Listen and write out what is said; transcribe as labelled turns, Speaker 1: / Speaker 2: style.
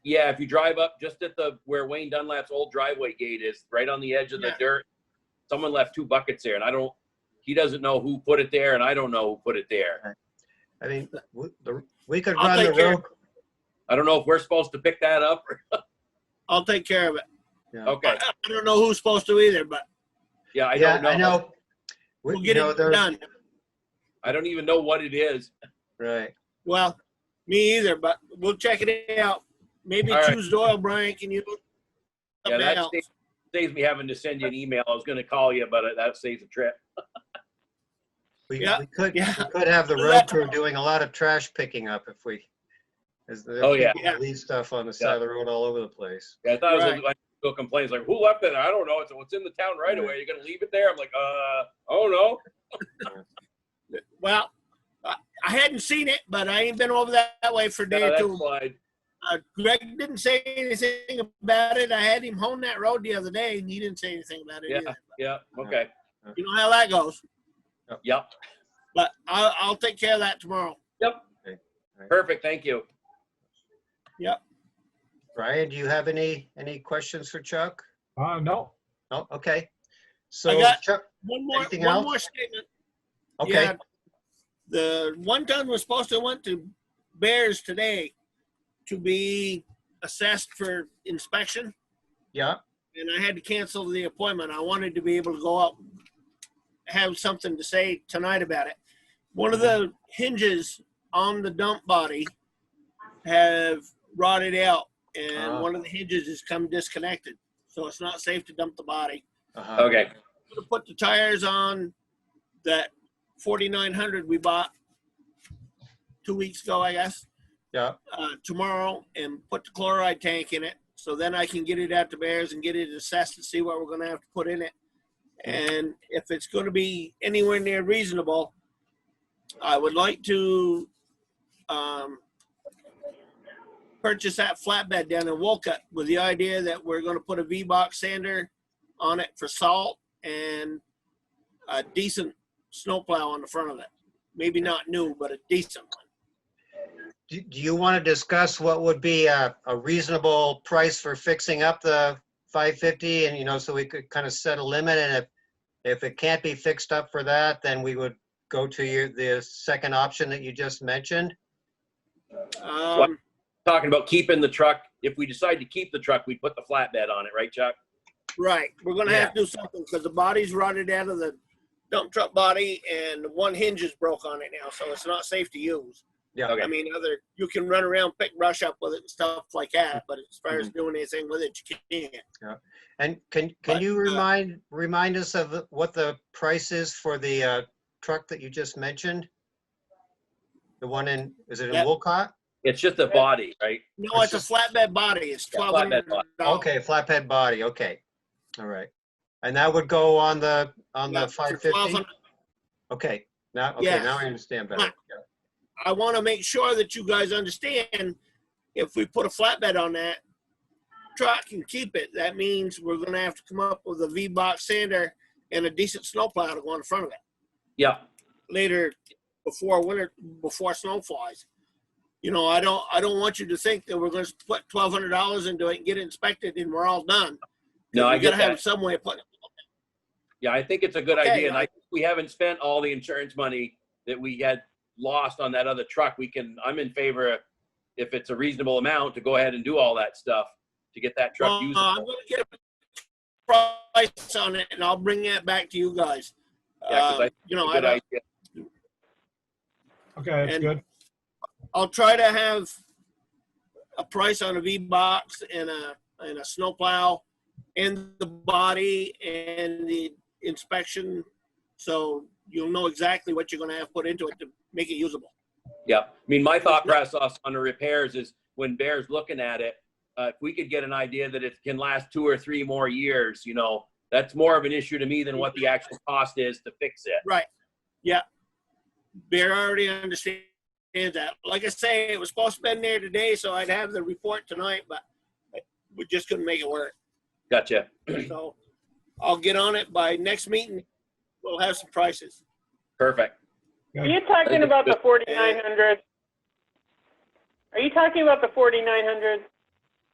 Speaker 1: Yeah, if you drive up just at the where Wayne Dunlap's old driveway gate is, right on the edge of the
Speaker 2: Yeah.
Speaker 1: dirt, someone left two buckets there, and I don't. He doesn't know who put it there, and I don't know who put it there.
Speaker 3: I mean, w- the- we could
Speaker 2: I'll
Speaker 3: run the
Speaker 2: take care.
Speaker 3: road.
Speaker 1: I don't know if we're supposed to pick that up. or-
Speaker 2: I'll take care of it.
Speaker 1: Okay,
Speaker 2: I, I don't know who's supposed to either, but
Speaker 1: yeah, I
Speaker 3: Yeah,
Speaker 1: don't know.
Speaker 3: I know. We-
Speaker 2: we'll
Speaker 3: you
Speaker 2: get
Speaker 3: know,
Speaker 2: it
Speaker 3: there's-
Speaker 2: done.
Speaker 1: I don't even know what it is.
Speaker 3: Right.
Speaker 2: Well, me either, but we'll check it out. Maybe
Speaker 1: All right.
Speaker 2: choose Doyle, Brian. Can you?
Speaker 1: Yeah,
Speaker 2: something
Speaker 1: that
Speaker 2: else.
Speaker 1: saves, saves me having to send you an email. I was going to call you, but that saves a trip.
Speaker 3: We,
Speaker 2: Yeah,
Speaker 3: we could
Speaker 2: yeah.
Speaker 3: we could have the
Speaker 2: Do
Speaker 3: road
Speaker 2: that
Speaker 3: crew doing a lot of trash picking up if we. As the
Speaker 1: Oh, yeah.
Speaker 3: people
Speaker 2: Yeah.
Speaker 3: leave stuff on the side of the road all over the place.
Speaker 1: Yeah, I thought it was
Speaker 2: Right.
Speaker 1: like people complaints like, "Who left it?" I don't know. It's what's in the town right away. You're going to leave it there? I'm like, uh, oh no.
Speaker 2: Well, I, I hadn't seen it, but I ain't been over that, that way for a day
Speaker 1: No,
Speaker 2: or
Speaker 1: that's
Speaker 2: two.
Speaker 1: fine.
Speaker 2: Uh, Greg didn't say anything about it. I had him hone that road the other day, and he didn't say anything about it.
Speaker 1: Yeah.
Speaker 2: Either.
Speaker 1: Yeah. Okay.
Speaker 2: You know how that goes.
Speaker 1: Yep.
Speaker 2: But I'll, I'll take care of that tomorrow.
Speaker 1: Perfect. Thank you.
Speaker 3: Brian, do you have any any questions for Chuck?
Speaker 4: Uh, no,
Speaker 3: No. Okay. So
Speaker 2: got-
Speaker 3: Chuck.
Speaker 2: One more,
Speaker 3: Anything
Speaker 2: one
Speaker 3: else?
Speaker 2: more statement.
Speaker 3: Okay.
Speaker 2: Yeah, the one ton was supposed to went to Bears today to be assessed for inspection,
Speaker 3: yeah.
Speaker 2: and I had to cancel the appointment. I wanted to be able to go out, have something to say tonight about it. One of the hinges on the dump body have rotted out, and
Speaker 3: Ah.
Speaker 2: one of the hinges has come disconnected, so it's not safe to dump the body
Speaker 3: Uh-huh.
Speaker 1: Okay.
Speaker 2: to put the tires on that 4900 we bought two weeks ago, I guess,
Speaker 3: Yeah.
Speaker 2: uh, tomorrow and put the chloride tank in it. So then I can get it out to Bears and get it assessed and see what we're going to have to put in it. And if it's going to be anywhere near reasonable, I would like to um, purchase that flatbed down in Wolcott with the idea that we're going to put a V box sander on it for salt and a decent snowplow on the front of it. Maybe not new, but a decent one.
Speaker 3: Do, do you want to discuss what would be a, a reasonable price for fixing up the 550 and, you know, so we could kind of set a limit and if, if it can't be fixed up for that, then we would go to your, the second option that you just mentioned?
Speaker 2: Um,
Speaker 1: Talking about keeping the truck. If we decide to keep the truck, we put the flatbed on it, right, Chuck?
Speaker 2: right, we're gonna have to do something because the body's rotted out of the dump truck body and one hinge is broke on it now, so it's not safe to use.
Speaker 3: Yeah.
Speaker 1: Okay.
Speaker 2: I mean, other, you can run around, pick brush up with it and stuff like that, but as far as
Speaker 1: Mm-hmm.
Speaker 2: doing anything with it, you can't.
Speaker 3: And can, can
Speaker 2: But,
Speaker 3: you
Speaker 2: uh,
Speaker 3: remind, remind us of what the price is for the uh, truck that you just mentioned? The one in, is it in
Speaker 2: Yep.
Speaker 3: Wolcott?
Speaker 1: It's just a body, right?
Speaker 2: No, it's a flatbed body, it's
Speaker 1: Yeah,
Speaker 2: twelve
Speaker 1: flatbed
Speaker 2: hundred
Speaker 1: body.
Speaker 2: dollars.
Speaker 3: Okay, flatbed body, okay. All right. And that would go on the, on the 550? Okay, now, okay,
Speaker 2: Yes.
Speaker 3: now I understand better.
Speaker 2: I want to make sure that you guys understand, if we put a flatbed on that truck and keep it, that means we're gonna have to come up with a V-box sander and a decent snowplow to go in front of it
Speaker 1: Yeah.
Speaker 2: later before winter, before snow flies. You know, I don't, I don't want you to think that we're gonna put twelve hundred dollars into it and get it inspected and we're all done.
Speaker 1: No, I
Speaker 2: We
Speaker 1: get
Speaker 2: gotta have
Speaker 1: that.
Speaker 2: some way of putting,
Speaker 1: Yeah, I think it's a good
Speaker 2: Okay,
Speaker 1: idea. And I
Speaker 2: I-
Speaker 1: think we haven't spent all the insurance money that we had lost on that other truck. We can, I'm in favor, if it's a reasonable amount, to go ahead and do all that stuff to get that
Speaker 2: uh,
Speaker 1: truck
Speaker 2: I'm
Speaker 1: usable.
Speaker 2: gonna get a price on it and I'll bring that back to you guys.
Speaker 1: Yeah, 'cause I
Speaker 2: Uh, You know, I
Speaker 1: Good
Speaker 2: don't,
Speaker 1: idea.
Speaker 4: okay, that's
Speaker 2: And-
Speaker 4: good.
Speaker 2: I'll try to have a price on a V box and a and a snowplow and the body and the inspection, so you'll know exactly what you're gonna have put into it to make it usable.
Speaker 1: Yeah, I mean, my thought process on the repairs is when Bear's looking at it, uh, if we could get an idea that it can last two or three more years, you know, that's more of an issue to me than what the actual cost is to fix it.
Speaker 2: Bear already understands that. Like I say, it was supposed to be in there today, so I'd have the report tonight, but we just couldn't make it work.
Speaker 1: Gotcha.
Speaker 2: So I'll get on it by next meeting. We'll have some prices.
Speaker 1: Perfect.
Speaker 5: Are you talking about the 4900? Are you talking about the 4900?